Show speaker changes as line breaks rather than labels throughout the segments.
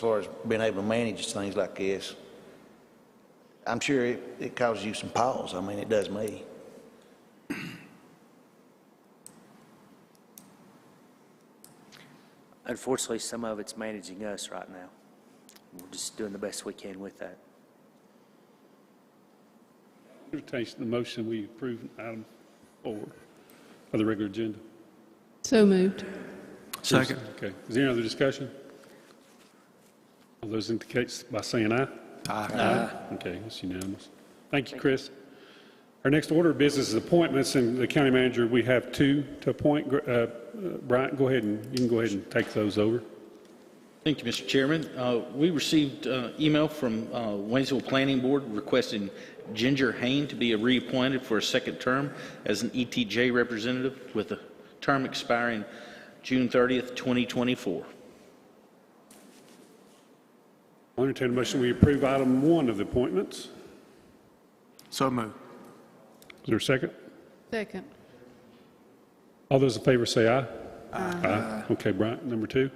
far as being able to manage things like this. I'm sure it, it causes you some pause. I mean, it does me.
Unfortunately, some of it's managing us right now. We're just doing the best we can with that.
Entertain the motion, we approve item four of the regular agenda.
So moved.
Second.
Okay, is there any other discussion? All those indicates by saying aye. Aye. Okay, that's unanimous. Thank you, Chris. Our next order of business is appointments, and the county manager, we have two to appoint. Gr- uh, uh, Bryant, go ahead and, you can go ahead and take those over.
Thank you, Mr. Chairman. Uh, We received uh, email from uh, Waynesville Planning Board requesting Ginger Hain to be reappointed for a second term as an ETJ representative with a term expiring June 30th, 2024.
I'll entertain a motion, we approve item one of the appointments.
So moved.
Is there a second?
Second.
All those in favor say aye. Aye. Okay, Bryant, number two.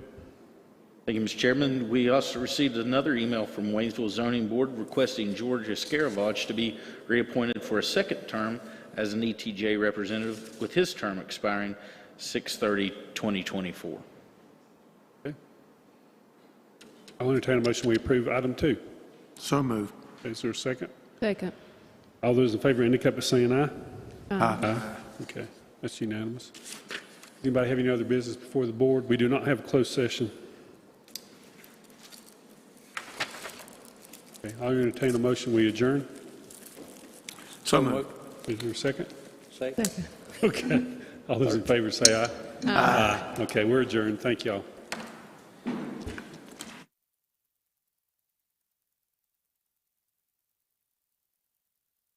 Thank you, Mr. Chairman. We also received another email from Waynesville Zoning Board requesting George Escaravage to be reappointed for a second term as an ETJ representative with his term expiring 6/30/2024.
I'll entertain a motion, we approve item two.
So moved.
Is there a second?
Second.
All those in favor indicate by saying aye. Aye. Okay, that's unanimous. Anybody have any other business before the board? We do not have a closed session. Okay, I'll entertain a motion, we adjourn.
So moved.
Is there a second?
Second.
Okay, all those in favor say aye. Aye. Okay, we're adjourned, thank y'all.